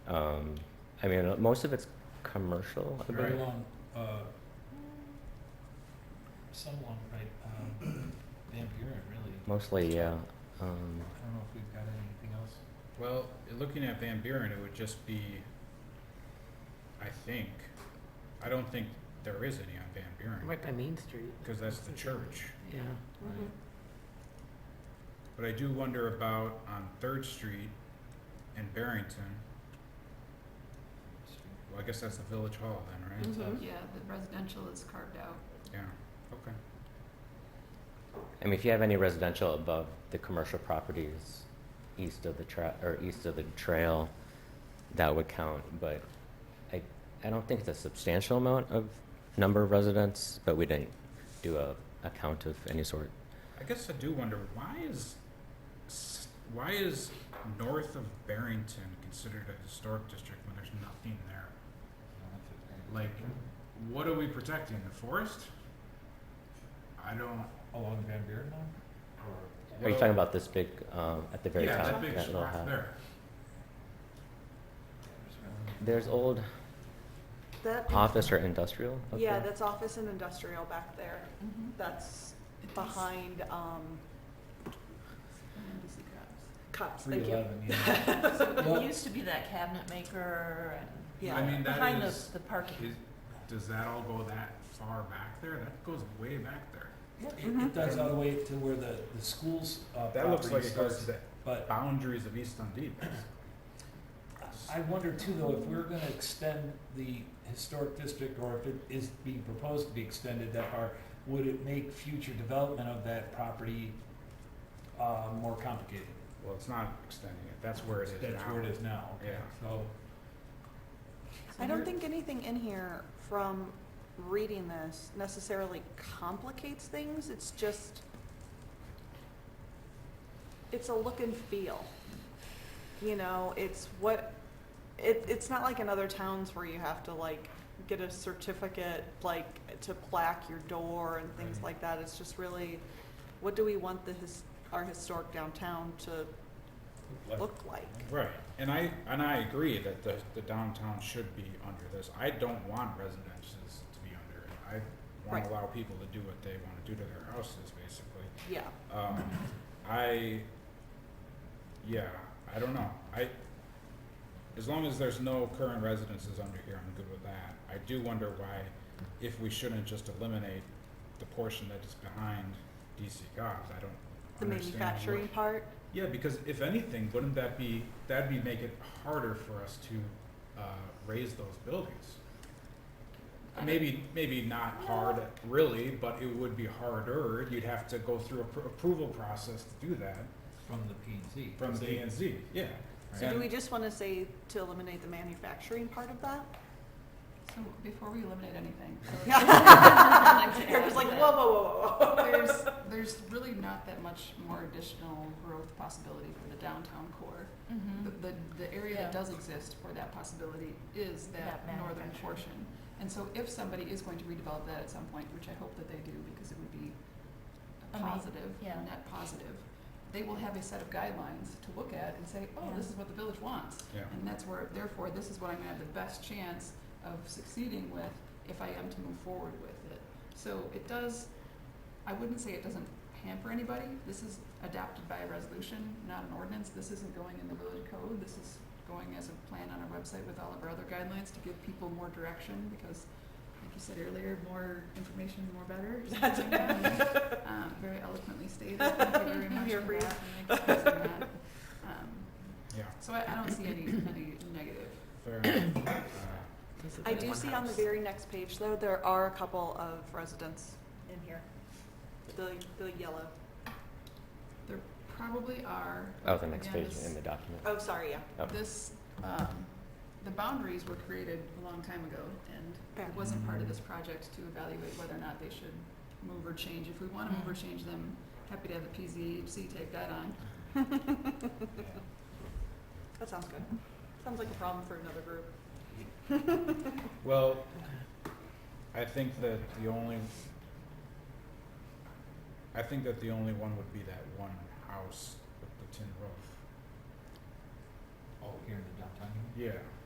Um, I mean, most of it's commercial, I Very believe. long, uh, so long, right, um, Van Buren, really. Mostly, yeah. Um, I don't know if we've got anything else. Well, looking at Van Buren, it would just be, I think, I don't think there is any on Van Buren, Right by Main Street, because that's the church. yeah. right? But I do wonder about on Third Street in Barrington, well, I guess that's the Village Hall then, right? Yeah, the residential is carved out. Yeah, okay. I mean, if you have any residential above the commercial properties east of the tra- or east of the trail, that would count, but I, I don't think it's a substantial amount of number of residents, but we didn't do a, a count of any sort. I guess I do wonder, why is, s- why is north of Barrington considered a historic district when there's nothing there? Like, what are we protecting? The forest? I don't. Along Van Buren now, or? Are you well, talking about this big, um, at the very yeah, top? that big little swath house? there. There's old That, office or industrial up yeah, there? that's office and industrial back there. That's Mm-hmm. It does. behind, um, And the secrets. cops, Three thank you. eleven, yeah. It used to be that cabinet maker I Yeah, mean, and that behind the, is- the parking. Is, does that all go that far back there? That goes way back there. Yeah, It, it does all the way to where the, the school's, uh, property starts, the but boundaries of East Dundee. That's- I wonder too, though, if we're gonna extend the historic district, or if it is being proposed to be extended that far, would it make future development of that property, uh, more complicated? Well, it's not extending it. That's where it is That's now. where it is now, okay, Yeah. so, I don't think anything in here from reading this necessarily complicates things, it's just, it's a look and feel. You know, it's what, it, it's not like in other towns where you have to like get a certificate, like to plaque your door and things Right. like that, it's just really, what do we want the his, our historic downtown to like, look like? Right, and I, and I agree that the, the downtown should be under this. I don't want residences to be under it. I wanna Right. allow people to do what they wanna do to their houses, basically. Yeah, Um, I, yeah, I don't know. I, as long as there's no current residences under here, I'm good with that. I do wonder why, if we shouldn't just eliminate the portion that is behind DC Cobb's, I don't the understand. what- manufacturing part, yeah, because if anything, wouldn't that be, that'd be make it harder for us to uh, raise those buildings? Maybe, maybe not hard, really, but it would be harder. You'd have to go through a pr- approval process to do that from the P and Z. from D and Z, yeah. so do And- we just wanna say to eliminate the manufacturing part of that? So before we eliminate anything. I'd like to You're just add like, that whoa, whoa, whoa, whoa, whoa. There's, there's really not that much more additional growth possibility for the downtown core. Mhm. The, the, the area Yeah. that does exist for that possibility is that That northern manufacturing. portion. And so if somebody is going to redevelop that at some point, which I hope that they do, because it would be a Ama- positive, yeah. net positive, they will have a set of guidelines to look at and say, oh, Yeah. this is what the village wants. Yeah. And that's where, therefore, this is what I'm gonna have the best chance of succeeding with if I am to move forward with it. So it does, I wouldn't say it doesn't hamper anybody. This is adopted by a resolution, not an ordinance. This isn't going in the village code. This is going as a plan on our website with all of our other guidelines to give people more direction because, like you said earlier, more information, more better. or something like that. Um, very eloquently stated. Thank you very much Here for for you. that. and thanks for that. Um, Yeah, so I, I don't see any, any negative. fair enough. Uh, I do see on the very next page though, there are a couple of residents in here. The, the yellow, There probably are. Oh, the next again, page this- in the document. oh, sorry, yeah, Oh. This, um, the boundaries were created a long time ago and Fair. it wasn't part of this project to evaluate whether or not they should move or change. If we wanna move or change them, happy to have the PZHC take that on. that sounds good. Sounds like a problem for another group. Well, I think that the only, I think that the only one would be that one house with the tin roof. Oh, here in the downtown, Yeah,